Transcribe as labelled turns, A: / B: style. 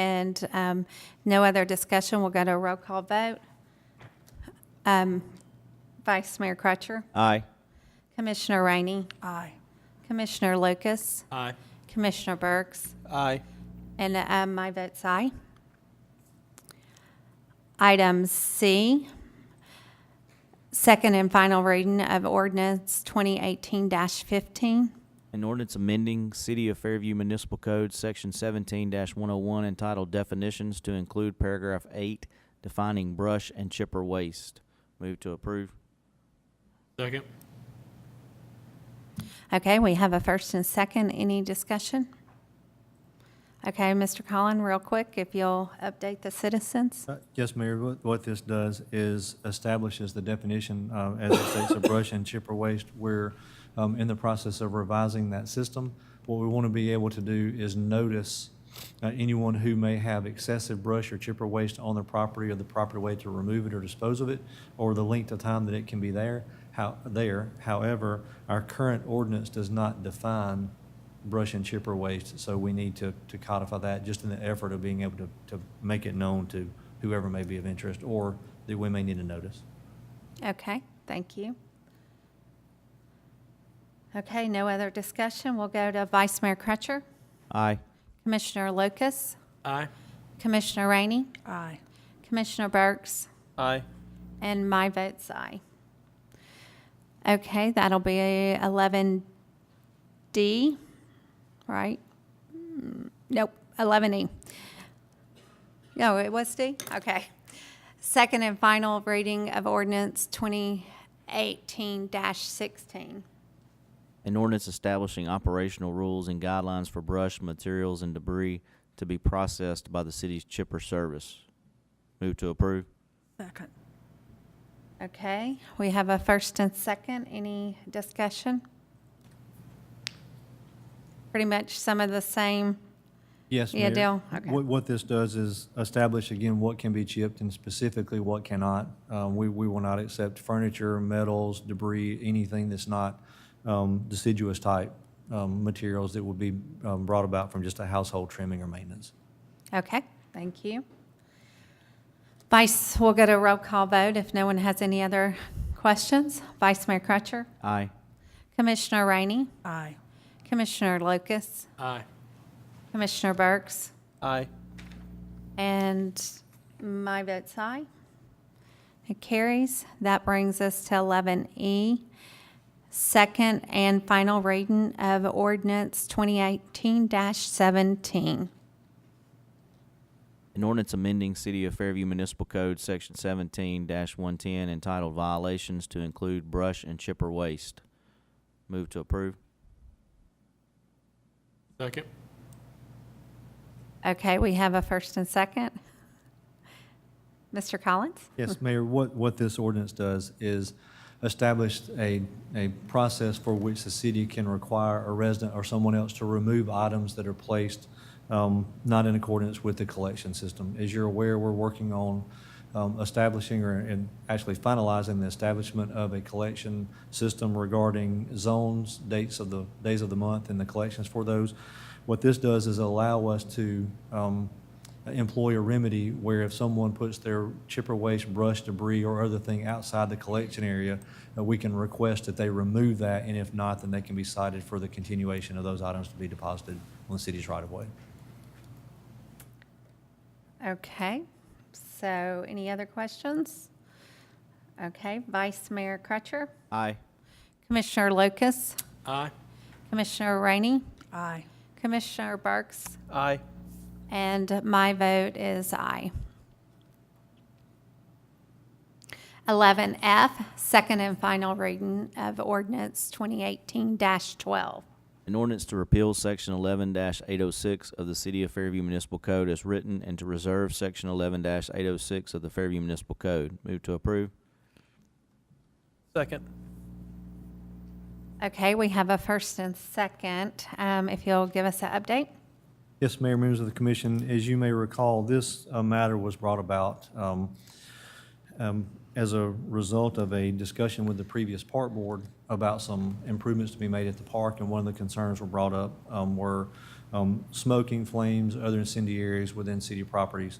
A: and um, no other discussion. We'll go to a roll call vote. Um, Vice Mayor Crutcher,
B: Aye.
A: Commissioner Rainey,
C: Aye.
A: Commissioner Lucas,
C: Aye.
A: Commissioner Burks,
C: Aye.
A: and um, my vote's aye. Item C, second and final reading of ordinance 2018-15.
B: An ordinance amending City of Fairview Municipal Code, Section seventeen one oh one, entitled Definitions to include paragraph eight, defining brush and chipper waste. Move to approve.
C: Second.
A: Okay, we have a first and second. Any discussion? Okay, Mr. Collin, real quick, if you'll update the citizens.
D: Uh, Yes, Mayor, what, what this does is establishes the definition, uh, as it states, of brush and chipper waste. We're, um, in the process of revising that system. What we want to be able to do is notice, uh, anyone who may have excessive brush or chipper waste on their property or the proper way to remove it or dispose of it, or the length of time that it can be there, how, there. However, our current ordinance does not define brush and chipper waste, so we need to, to codify that just in the effort of being able to, to make it known to whoever may be of interest or that we may need to notice.
A: Okay, thank you. Okay, no other discussion. We'll go to Vice Mayor Crutcher,
B: Aye.
A: Commissioner Lucas,
C: Aye.
A: Commissioner Rainey,
C: Aye.
A: Commissioner Burks,
C: Aye.
A: and my vote's aye. Okay, that'll be 11D, right? Mm, Nope, 11E. No, it was D? Okay. Second and final reading of ordinance 2018-16.
B: An ordinance establishing operational rules and guidelines for brush, materials, and debris to be processed by the city's chipper service. Move to approve.
E: Second.
A: Okay, we have a first and second. Any discussion? Pretty much some of the same.
D: Yes,
A: Yeah,
D: Mayor.
A: Dale, okay.
D: What, what this does is establish again what can be chipped and specifically what cannot. Uh, we, we will not accept furniture, metals, debris, anything that's not, um, deciduous type, um, materials that would be, um, brought about from just a household trimming or maintenance.
A: Okay, thank you. Vice, we'll get a roll call vote if no one has any other questions. Vice Mayor Crutcher,
B: Aye.
A: Commissioner Rainey,
E: Aye.
A: Commissioner Lucas,
C: Aye.
A: Commissioner Burks,
C: Aye.
A: and my vote's aye. It carries. That brings us to 11E, second and final reading of ordinance 2018-17.
B: An ordinance amending City of Fairview Municipal Code, Section seventeen one-ten, entitled Violations to include brush and chipper waste. Move to approve.
C: Second.
A: Okay, we have a first and second. Mr. Collins?
D: Yes, Mayor, what, what this ordinance does is establish a, a process for which the city can require a resident or someone else to remove items that are placed um, not in accordance with the collection system. As you're aware, we're working on um, establishing or and actually finalizing the establishment of a collection system regarding zones, dates of the, days of the month, and the collections for those. What this does is allow us to um, employ a remedy where if someone puts their chipper waste, brush, debris, or other thing outside the collection area, uh, we can request that they remove that, and if not, then they can be cited for the continuation of those items to be deposited on the city's right-of-way.
A: Okay, so any other questions? Okay, Vice Mayor Crutcher,
B: Aye.
A: Commissioner Lucas,
C: Aye.
A: Commissioner Rainey,
E: Aye.
A: Commissioner Burks,
C: Aye.
A: and my vote is aye. 11F, second and final reading of ordinance 2018-12.
B: An ordinance to repeal Section eleven eight oh six of the City of Fairview Municipal Code as written and to reserve Section eleven eight oh six of the Fairview Municipal Code. Move to approve.
C: Second.
A: Okay, we have a first and second. Um, If you'll give us an update.
D: Yes, Mayor, members of the commission, as you may recall, this uh, matter was brought about um, um, as a result of a discussion with the previous park board about some improvements to be made at the park, and one of the concerns were brought up um, were um, smoking, flames, other incendiaries within city properties.